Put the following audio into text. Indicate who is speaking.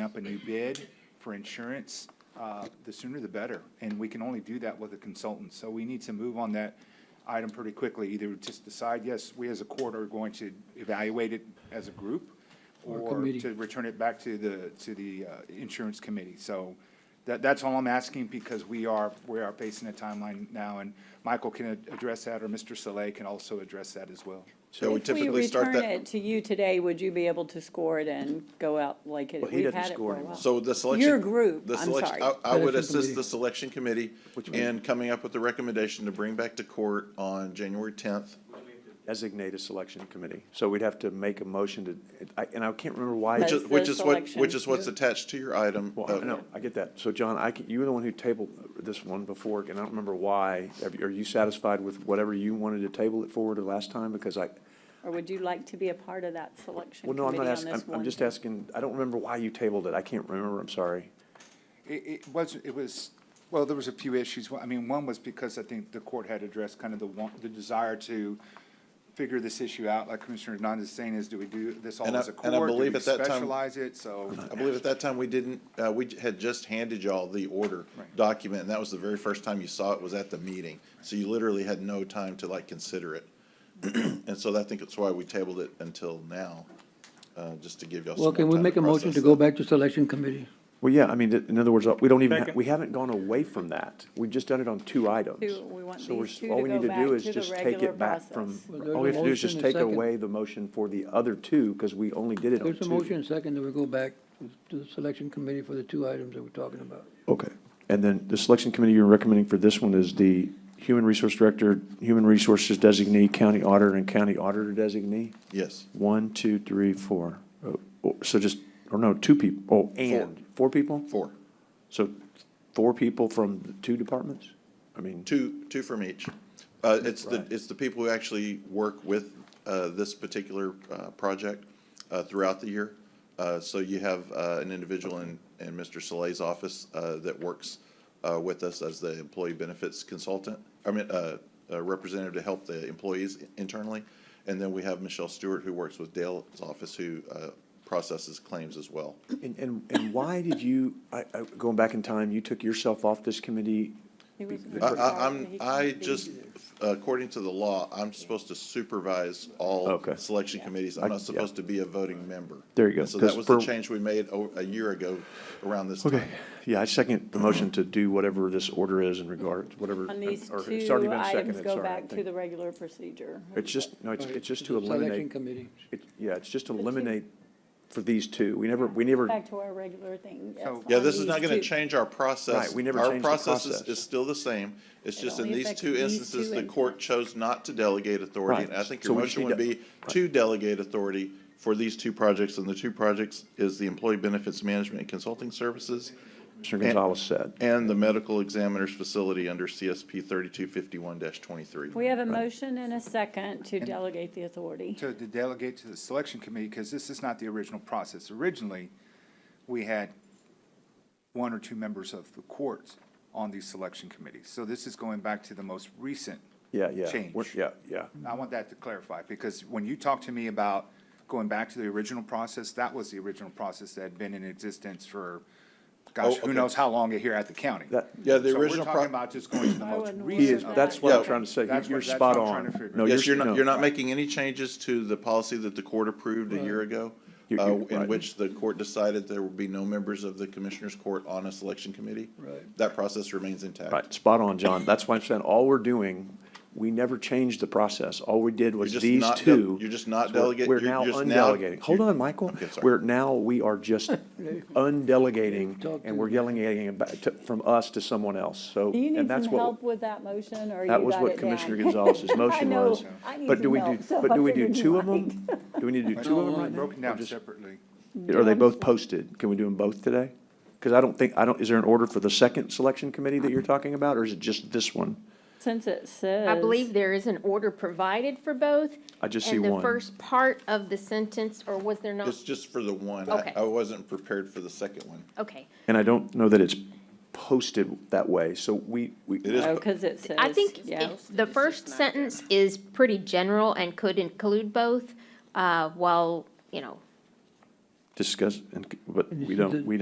Speaker 1: up a new bid for insurance, uh, the sooner the better. And we can only do that with a consultant. So we need to move on that item pretty quickly. Either just decide, yes, we as a court are going to evaluate it as a group
Speaker 2: Or
Speaker 1: or
Speaker 2: committee.
Speaker 1: to return it back to the, to the uh, insurance committee. So that, that's all I'm asking because we are, we are facing a timeline now. And Michael can ad- address that or Mr. Saleh can also address that as well.
Speaker 3: So we typically start
Speaker 4: If we return
Speaker 3: that,
Speaker 4: it to you today, would you be able to score it and go out like it,
Speaker 5: Well, he
Speaker 4: we've
Speaker 5: doesn't
Speaker 4: had it
Speaker 5: score
Speaker 4: for a
Speaker 5: anymore.
Speaker 4: while?
Speaker 3: so the selection.
Speaker 4: Your group,
Speaker 3: the
Speaker 4: I'm
Speaker 3: selection-
Speaker 4: sorry.
Speaker 3: I, I would
Speaker 2: Selection
Speaker 3: assist
Speaker 2: committee.
Speaker 3: the selection committee
Speaker 5: Which we-
Speaker 3: in coming up with the recommendation to bring back to court on January tenth.
Speaker 5: designate a selection committee. So we'd have to make a motion to, I- and I can't remember why.
Speaker 3: Which
Speaker 4: That's
Speaker 3: is,
Speaker 4: the
Speaker 3: which is what,
Speaker 4: selection.
Speaker 3: which is what's attached to your item.
Speaker 5: Well,
Speaker 3: uh,
Speaker 5: I know, I get that. So John, I, can- you were the one who tabled this one before, and I don't remember why. Have you- Are you satisfied with whatever you wanted to table it for to last time? Because I,
Speaker 4: Or would you like to be a part of that selection
Speaker 5: well, no, I'm
Speaker 4: committee on
Speaker 5: not
Speaker 4: this
Speaker 5: asking,
Speaker 4: one?
Speaker 5: I'm, I'm just asking, I don't remember why you tabled it. I can't remember, I'm sorry.
Speaker 1: It, it was, it was, well, there was a few issues. Well, I mean, one was because I think the court had addressed kind of the want, the desire to figure this issue out, like Commissioner Hernandez is saying, is do we do this all
Speaker 3: And I-
Speaker 1: as a
Speaker 3: and I
Speaker 1: court? Do
Speaker 3: believe
Speaker 1: we
Speaker 3: at that time-
Speaker 1: Specialize it, so.
Speaker 3: I believe at that time, we didn't, uh, we had just handed y'all the order
Speaker 1: Right.
Speaker 3: document, and that was the very first time you saw it was at the meeting. So you literally had no time to like consider it. And so I think it's why we tabled it until now, uh, just to give y'all some
Speaker 2: Well,
Speaker 3: more
Speaker 2: can we
Speaker 3: time
Speaker 2: make a motion to
Speaker 3: process
Speaker 2: go
Speaker 3: that.
Speaker 2: back to selection committee?
Speaker 5: Well, yeah, I mean, th- in other words, uh, we don't even, ha- we haven't gone away from that. We've just done it on two items.
Speaker 4: Two- we want
Speaker 5: So we're
Speaker 4: these
Speaker 5: s-
Speaker 4: two
Speaker 5: all
Speaker 4: to
Speaker 5: we
Speaker 4: go
Speaker 5: need
Speaker 4: back
Speaker 5: do is
Speaker 4: to the
Speaker 5: just take
Speaker 4: regular
Speaker 5: it back from.
Speaker 4: process.
Speaker 2: Well, there's
Speaker 5: All we
Speaker 2: a
Speaker 5: have to do is
Speaker 2: motion
Speaker 5: just
Speaker 2: and
Speaker 5: take
Speaker 2: second.
Speaker 5: away the motion for the other two, because we only did it on two.
Speaker 2: There's a motion second that we go back to the selection committee for the two items that we're talking about.
Speaker 5: Okay. And then the selection committee you're recommending for this one is the human resource director, human resources designee, county auditor, and county auditor designee?
Speaker 3: Yes.
Speaker 5: One, two, three, four. Oh, oh, So just, or no, two people, oh, and, four people?
Speaker 3: Four.
Speaker 5: So four people from the two departments? I mean,
Speaker 3: Two, two from each. Uh, It's the,
Speaker 5: Right.
Speaker 3: it's the people who actually work with uh, this particular uh, project uh, throughout the year. Uh, So you have uh, an individual in, in Mr. Soleil's office uh, that works uh, with us as the employee benefits consultant, I mean, uh, a representative to help the employees internally. And then we have Michelle Stewart, who works with Dale's office, who uh, processes claims as well.
Speaker 5: and, and, and why did you, I, I, going back in time, you took yourself off this committee?
Speaker 4: He was
Speaker 3: I,
Speaker 4: gonna
Speaker 3: I,
Speaker 4: start, but
Speaker 3: I'm,
Speaker 4: he
Speaker 3: I
Speaker 4: couldn't be
Speaker 3: just,
Speaker 4: here.
Speaker 3: according to the law, I'm supposed to supervise all
Speaker 5: Okay.
Speaker 3: selection committees.
Speaker 5: I-
Speaker 3: I'm
Speaker 5: yeah.
Speaker 3: not supposed to be a voting member.
Speaker 5: There you go,
Speaker 3: And So that
Speaker 5: 'cause
Speaker 3: was the
Speaker 5: for-
Speaker 3: change we made o- a year ago around this time.
Speaker 5: Yeah, I second the motion to do whatever this order is in regard, whatever.
Speaker 4: On these
Speaker 5: or it's already
Speaker 4: two
Speaker 5: been
Speaker 4: items,
Speaker 5: seconded,
Speaker 4: go
Speaker 5: sorry, I
Speaker 4: back to
Speaker 5: think.
Speaker 4: the regular procedure.
Speaker 5: It's just, no, it's, it's just to
Speaker 2: The Selection
Speaker 5: eliminate,
Speaker 2: committee.
Speaker 5: it, yeah, it's just to
Speaker 4: two.
Speaker 5: eliminate for these two. We never, we never,
Speaker 4: Back to our regular thing, yes.
Speaker 1: So-
Speaker 3: Yeah,
Speaker 4: on
Speaker 3: this is not
Speaker 4: these
Speaker 3: gonna
Speaker 4: two.
Speaker 3: change our process.
Speaker 5: Right, we never
Speaker 3: Our
Speaker 5: changed the
Speaker 3: process is-
Speaker 5: process.
Speaker 3: Is still the same. It's
Speaker 4: It
Speaker 3: just in
Speaker 4: only
Speaker 3: these
Speaker 4: affects
Speaker 3: two
Speaker 4: these
Speaker 3: instances,
Speaker 4: two
Speaker 3: the court chose not to delegate authority.
Speaker 5: Right,
Speaker 3: And I think
Speaker 5: so
Speaker 3: your
Speaker 5: we just
Speaker 3: motion would
Speaker 5: need to-
Speaker 3: be to delegate authority for these two projects. And the two projects is the Employee Benefits Management and Consulting Services
Speaker 5: Commissioner Gonzalez said.
Speaker 3: And the medical examiner's facility under CSP thirty-two fifty-one twenty-three.
Speaker 4: We have a motion and a second to delegate the authority.
Speaker 1: to to delegate to the selection committee, because this is not the original process. Originally, we had one or two members of the court on these selection committees. So this is going back to the most recent
Speaker 5: Yeah, yeah.
Speaker 1: change.
Speaker 5: We're- Yeah, yeah.
Speaker 1: I want that to clarify, because when you talk to me about going back to the original process, that was the original process that had been in existence for, gosh,
Speaker 3: Oh,
Speaker 1: who
Speaker 3: okay.
Speaker 1: knows how long here at the county.
Speaker 5: That,
Speaker 3: Yeah, the
Speaker 1: So we're
Speaker 3: original,
Speaker 1: talking
Speaker 3: pro-
Speaker 1: about just going to the
Speaker 4: I
Speaker 1: most
Speaker 4: wouldn't want
Speaker 5: he
Speaker 1: recent.
Speaker 5: is, that's what I'm trying to say. You-
Speaker 1: That's
Speaker 5: You're
Speaker 1: what- that's
Speaker 5: spot
Speaker 1: what I'm trying to
Speaker 5: on.
Speaker 1: figure
Speaker 5: No,
Speaker 1: out.
Speaker 3: yes, you're
Speaker 5: no.
Speaker 3: not, you're not making any changes to the policy that the court approved a year ago,
Speaker 5: You-
Speaker 3: uh,
Speaker 5: you-
Speaker 3: in
Speaker 5: right.
Speaker 3: which the court decided there would be no members of the commissioners' court on a selection committee.
Speaker 2: Right.
Speaker 3: That process remains intact.
Speaker 5: Right, spot on, John. That's why I'm saying, all we're doing, we never changed the process. All we did
Speaker 3: You're
Speaker 5: was
Speaker 3: just
Speaker 5: these
Speaker 3: not del-
Speaker 5: two.
Speaker 3: You're just not
Speaker 5: We're-
Speaker 3: delegating.
Speaker 5: We're now undelegating. Hold on, Michael.
Speaker 3: Okay, sorry.
Speaker 5: We're now, we are just undelegating,
Speaker 2: Talk to
Speaker 5: and we're
Speaker 2: me.
Speaker 5: delegating it back to- from us to someone else, so.
Speaker 4: Do you
Speaker 5: and
Speaker 4: need
Speaker 5: that's
Speaker 4: some
Speaker 5: what-
Speaker 4: help with that motion, or you got
Speaker 5: That
Speaker 4: it
Speaker 5: was
Speaker 4: down?
Speaker 5: what Commissioner Gonzalez's motion was.
Speaker 4: I know, I
Speaker 5: But
Speaker 4: need
Speaker 5: do
Speaker 4: some
Speaker 5: we
Speaker 4: help,
Speaker 5: do,
Speaker 4: so
Speaker 5: but
Speaker 4: I
Speaker 5: do we do
Speaker 4: figured you
Speaker 5: two of
Speaker 4: might.
Speaker 5: them? Do we need to do two of them right now?
Speaker 1: Broken
Speaker 5: Or
Speaker 1: down
Speaker 5: just-
Speaker 1: separately.
Speaker 5: Are they
Speaker 4: I'm
Speaker 5: both
Speaker 4: sorry.
Speaker 5: posted? Can we do them both today? Because I don't think, I don't, is there an order for the second selection committee that you're talking about, or is it just this one?
Speaker 4: Since it says.
Speaker 6: I believe there is an order provided for both.
Speaker 5: I just see
Speaker 6: And
Speaker 5: one.
Speaker 6: the first part of the sentence, or was there not?
Speaker 3: It's just for the one. I,
Speaker 6: Okay.
Speaker 3: I wasn't prepared for the second one.
Speaker 6: Okay.
Speaker 5: And I don't know that it's posted that way, so we, we.
Speaker 3: It is
Speaker 4: Oh, because it says.
Speaker 6: I think
Speaker 4: yeah.
Speaker 6: it- the first sentence is pretty general and could include both, uh, while, you know,
Speaker 5: Discuss, and- but we don't, we